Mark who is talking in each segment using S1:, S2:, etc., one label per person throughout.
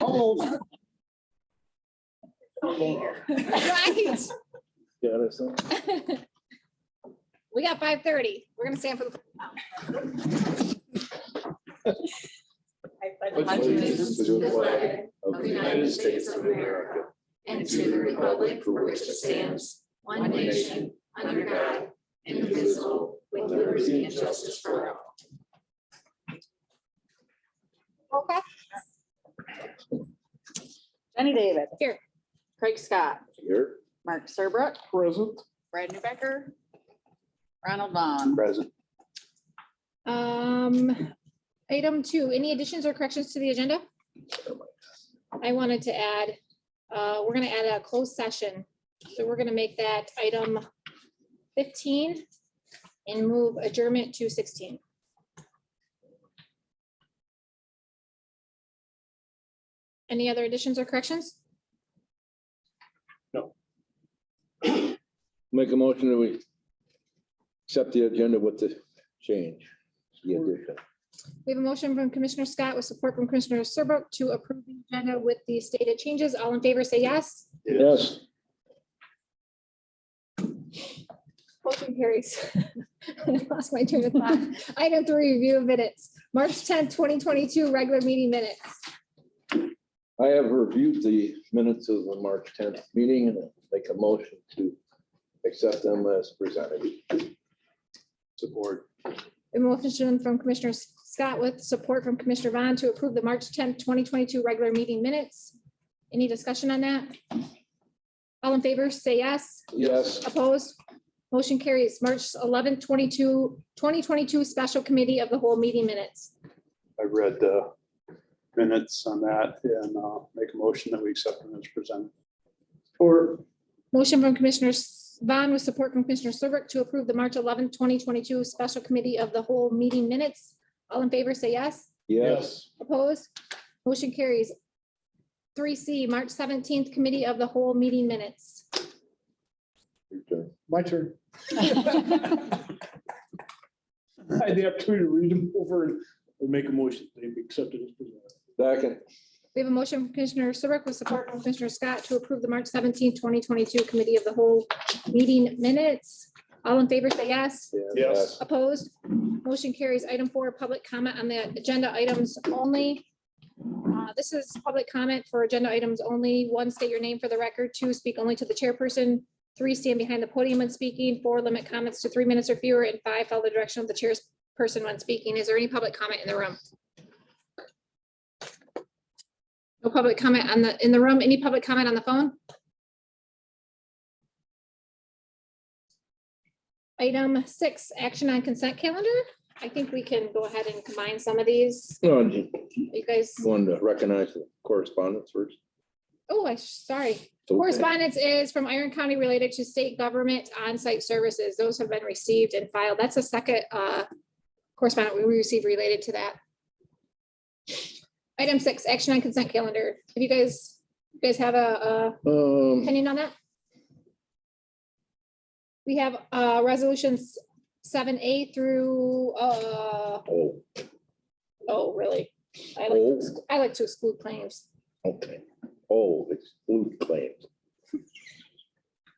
S1: old.
S2: Right.
S3: Yeah, that's it.
S2: We got five thirty. We're gonna stand for the.
S4: allegiance to the flag of the United States of America and to the republic for which it stands, one nation, under God, indivisible, with liberty and justice for all.
S2: roll call.
S1: Jenny David.
S2: Here.
S1: Craig Scott,
S3: Here.
S1: Mark Serbrook,
S3: Present.
S1: Brad Newbecker, Ronald Vaughn.
S3: Present.
S2: Um, item two, any additions or corrections to the agenda? I wanted to add, uh, we're gonna add a closed session. So we're gonna make that item fifteen and move adjournment to sixteen. Any other additions or corrections?
S3: Make a motion that we accept the agenda with the change. the addition.
S2: We have a motion from Commissioner Scott with support from Commissioner Serbrook to approve the agenda with the stated changes. All in favor, say yes.
S3: Yes.
S2: Motion carries. I Lost my train of thought. Item three, review of minutes, March tenth, twenty twenty-two, regular meeting minutes.
S3: I have reviewed the minutes of the March tenth meeting and make a motion to accept them as presented. Support.
S2: A motion from Commissioner Scott with support from Commissioner Vaughn to approve the March tenth, twenty twenty-two, regular meeting minutes. Any discussion on that? All in favor, say yes.
S3: Yes.
S2: Opposed? Motion carries. March eleventh, 22 2022, special committee of the whole meeting minutes.
S5: I read the minutes on that and uh, make a motion that we accept them as presented. Or.
S2: Motion from Commissioner S- Vaughn with support from Commissioner Serbrook to approve the March eleventh, twenty twenty-two special committee of the whole meeting minutes. All in favor, say yes.
S3: Yes.
S2: Opposed? Motion carries. Three C, March seventeenth, committee of the whole meeting minutes.
S3: Your turn.
S5: My turn. I had the opportunity to read them over and make a motion, they be accepted as presented.
S3: Second.
S2: We have a motion from Commissioner Serbrook with support from Commissioner Scott to approve the March seventeenth, twenty twenty-two committee of the whole meeting minutes. All in favor, say yes.
S5: Yes.
S2: Opposed? Motion carries. Item four, public comment on the agenda items only. Uh, This is public comment for agenda items only. One, state your name for the record. Two, speak only to the chairperson. Three, stand behind the podium when speaking. Four, limit comments to three minutes or fewer. And five, follow the direction of the chair's person when speaking. Is there any public comment in the room? No public comment on the, in the room. Any public comment on the phone? Item six, action on consent calendar. I think we can go ahead and combine some of these.
S3: Oh, do
S2: You guys.
S3: you want to recognize the correspondence first?
S2: Oh, I, sorry. Correspondence is from Iron County related to state government on-site services. Those have been received and filed. That's a second uh, correspondent we received related to that. Item six, action on consent calendar. If you guys, you guys have a, a
S3: Um,
S2: opinion on that? We have uh, resolutions seven A through, uh,
S3: oh,
S2: oh, really? I like,
S3: oh,
S2: I like to exclude claims.
S3: okay. Oh, exclude claims.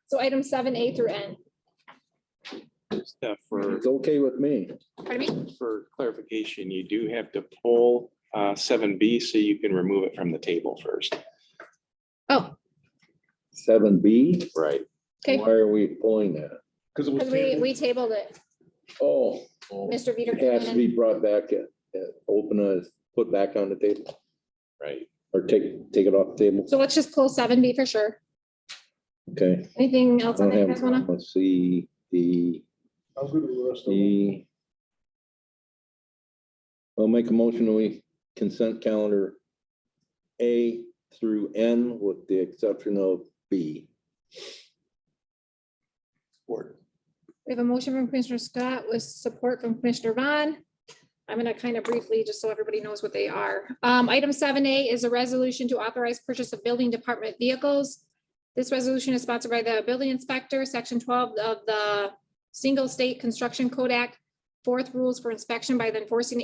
S2: So item seven A through N.
S6: Yeah, for,
S3: It's okay with me.
S2: Pardon me?
S6: for clarification, you do have to pull uh, seven B so you can remove it from the table first.
S2: Oh,
S3: Seven B,
S6: Right.
S2: okay.
S3: why are we pulling that?
S5: Because it was.
S2: Because we,
S5: tabled.
S2: we tabled it,
S3: Oh,
S2: Mr. Veter.
S3: it has to be brought back, uh, uh, open, uh, put back on the table
S6: Right.
S3: or take, take it off the table.
S2: So let's just pull seven B for sure.
S3: Okay.
S2: Anything
S3: I
S2: else on
S3: don't
S2: that? you guys
S3: have,
S2: wanna-
S3: a let's see, the,
S5: I was gonna rest them.
S3: the. E. I'll make a motion, we consent calendar A through N with the exception of B.
S2: We have a motion from Commissioner Scott with support from Commissioner Vaughn. I'm gonna kind of briefly, just so everybody knows what they are. Um, item seven A is a resolution to authorize purchase of building department vehicles. This resolution is sponsored by the building inspector, section twelve of the Single State Construction Code Act, fourth rules for inspection by the enforcing